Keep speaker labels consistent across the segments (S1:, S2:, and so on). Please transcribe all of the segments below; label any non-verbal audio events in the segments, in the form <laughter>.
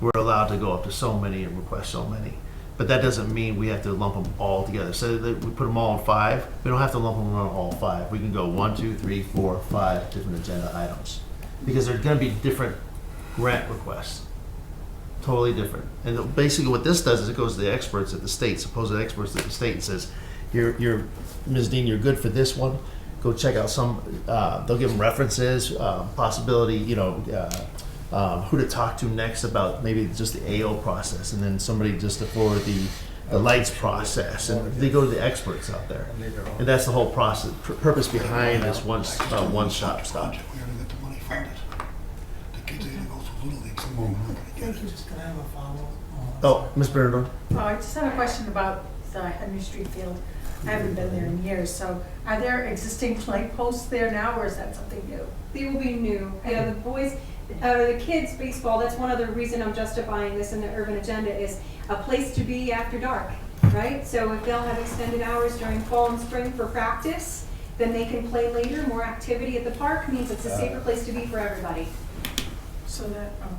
S1: we're allowed to go up to so many and request so many. But that doesn't mean we have to lump them all together. So that we put them all in five, we don't have to lump them on all five. We can go one, two, three, four, five different agenda items. Because they're gonna be different grant requests. Totally different. And basically what this does is it goes to the experts at the state, supposed experts at the state and says, you're, you're, Ms. Dean, you're good for this one. Go check out some, uh, they'll give them references, uh, possibility, you know, uh, um, who to talk to next about maybe just the AO process and then somebody just for the, the lights process. And they go to the experts out there. And that's the whole process, pur- purpose behind this one, uh, one shop stop.
S2: We're gonna get the money funded. The kids are gonna go through little leagues, and we're not gonna
S3: Thank
S2: get
S3: you,
S2: it.
S3: just gonna have a follow. uh,
S1: Oh, Ms. Bernadone?
S4: Oh, I just had a question about the Henry Street Field. I haven't been there in years, so are there existing light posts there now, or is that something new?
S5: They will be new. Yeah, the boys, uh, the kids baseball, that's one other reason I'm justifying this in the urban agenda is a place to be after dark, right? So if they'll have extended hours during fall and spring for practice, then they can play later, more activity at the park means it's a safer place to be for everybody.
S4: So that, um,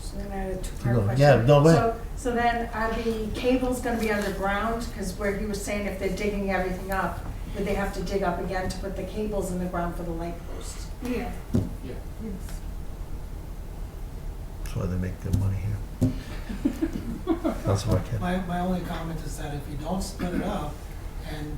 S4: so then I had a two-part
S1: No,
S4: question.
S1: yeah, no, wait.
S4: So, so then are the cables gonna be underground? Because where he was saying if they're digging everything up, would they have to dig up again to put the cables in the ground for the light posts?
S5: Yeah.
S1: That's why they make good money here. That's what I can.
S3: My, my only comment is that if you don't split it up, and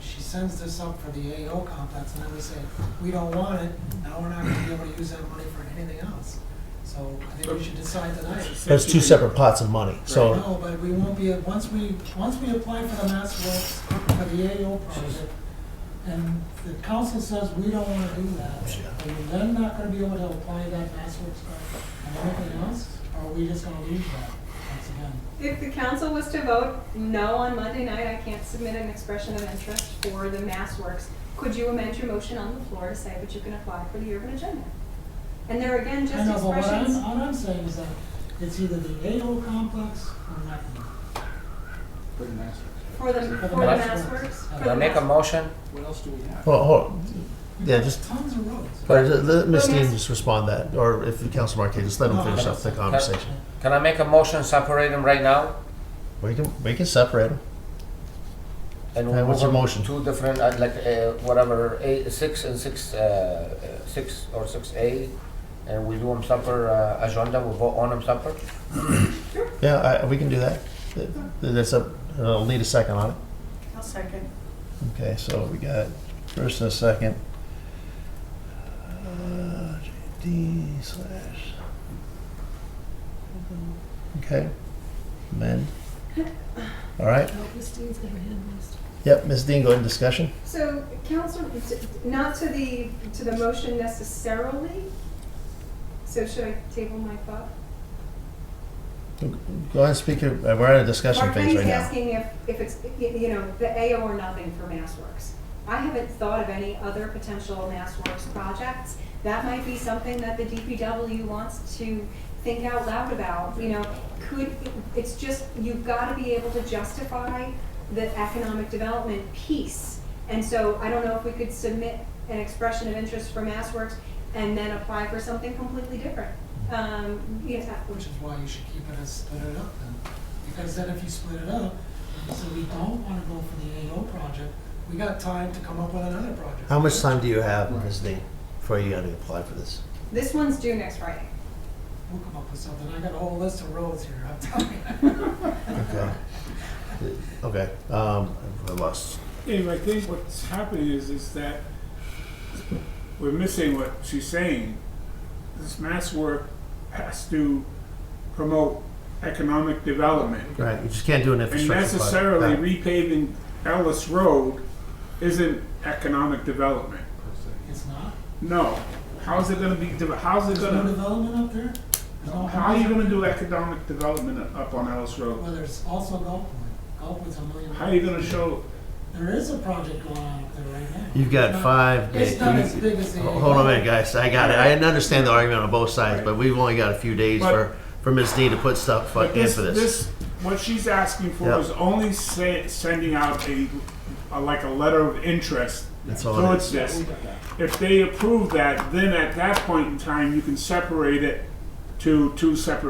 S3: she sends this up for the AO complex, and then we say, we don't want it, now we're not gonna be able to use that money for anything else. So I think we should decide tonight.
S1: There's two separate pots of money, so,
S3: No, but we won't be, once we, once we apply for the Mass Works, for the AO project, and the council says we don't wanna do that, are we then not gonna be able to apply that Mass Works grant and anything else? Or are we just gonna lose that once again?
S5: If the council was to vote no on Monday night, I can't submit an expression of interest for the Mass Works. Could you amend your motion on the floor to say that you can apply for the urban agenda? And there again,
S3: I
S5: just
S3: know, but what I'm,
S5: expressions.
S3: all I'm saying is that it's either the AO complex or nothing.
S5: For the, for the
S3: Mass
S5: Mass
S3: Works.
S5: Works?
S3: Uh,
S5: for
S6: Do I
S5: the
S6: make a
S5: Mass-
S6: motion?
S1: well, hold,
S3: We've
S1: Yeah,
S3: got
S1: just-
S3: Tons of roads.
S1: all right, let- let Ms. Dean
S5: Yes.
S1: just respond that, or if the Council Marquez, just let them finish up the conversation.
S6: Can I make a motion, separate them right now?
S1: We can, we can separate them.
S6: And
S1: Uh, what's your
S6: move on
S1: motion?
S6: Two different, uh, like, uh, whatever, eight, six and six, uh, uh, six or six A, and we do them separate, uh, agenda, we vote on them separate?
S1: Yeah, I, we can do that. Th- That's up, I'll need a second on it.
S4: I'll second.
S1: Okay, so we got first and a second. Uh, JD slash. Okay, amend. All right. Yep, Ms. Dean, go ahead and discussion.
S5: So, council, not to the, to the motion necessarily, so should I table my thought?
S1: Go ahead and speak your, uh, we're in a discussion phase
S5: Mark
S1: right
S5: Green's
S1: now.
S5: asking if, if it's, y- you know, the AO or nothing for MassWorks. I haven't thought of any other potential MassWorks projects. That might be something that the DPW wants to think out loud about, you know, could, it's just, you've got to be able to justify the economic development piece. And so I don't know if we could submit an expression of interest for MassWorks and then apply for something completely different. Um, you know,
S3: Which is why you should keep it as split it up then, because then if you split it up, and you say we don't wanna go for the AO project, we got time to come up with another project.
S1: How much time do you have, Ms. Dean, before you gotta apply for this?
S5: this one's due next Friday.
S3: We'll come up with something, I got a whole list of roads here, I'm telling you. <laughs>
S1: Okay. Okay, um, I lost.
S7: Anyway, I think what's happening is, is that we're missing what she's saying. This mass work has to promote economic development.
S1: Right, you just can't do an
S7: And
S1: infrastructure project.
S7: necessarily
S1: Right.
S7: repaving Ellis Road isn't economic development.
S3: It's not,
S7: No. How's it gonna be, de- how's it
S3: there's no
S7: gonna,
S3: development up there? There's no
S7: how are you
S3: housing?
S7: gonna do economic development up on Ellis Road?
S3: Well, there's also Gulfwood, Gulfwood's a million.
S7: How are you gonna show,
S3: There is a project going on up there right now.
S1: You've got five days.
S3: It's not as big as the.
S1: Hold on a minute, guys. I got it. I understand the argument on both sides, but we've only got a few days
S7: But-
S1: for, for Ms. Dean to put stuff fu-
S7: But
S1: in
S7: this,
S1: for this.
S7: this, what she's asking for
S1: Yeah.
S7: is only se- sending out a, a, like a letter of interest
S1: That's all it
S7: towards
S1: is.
S7: this. If they approve that, then at that point in time, you can separate it to two separate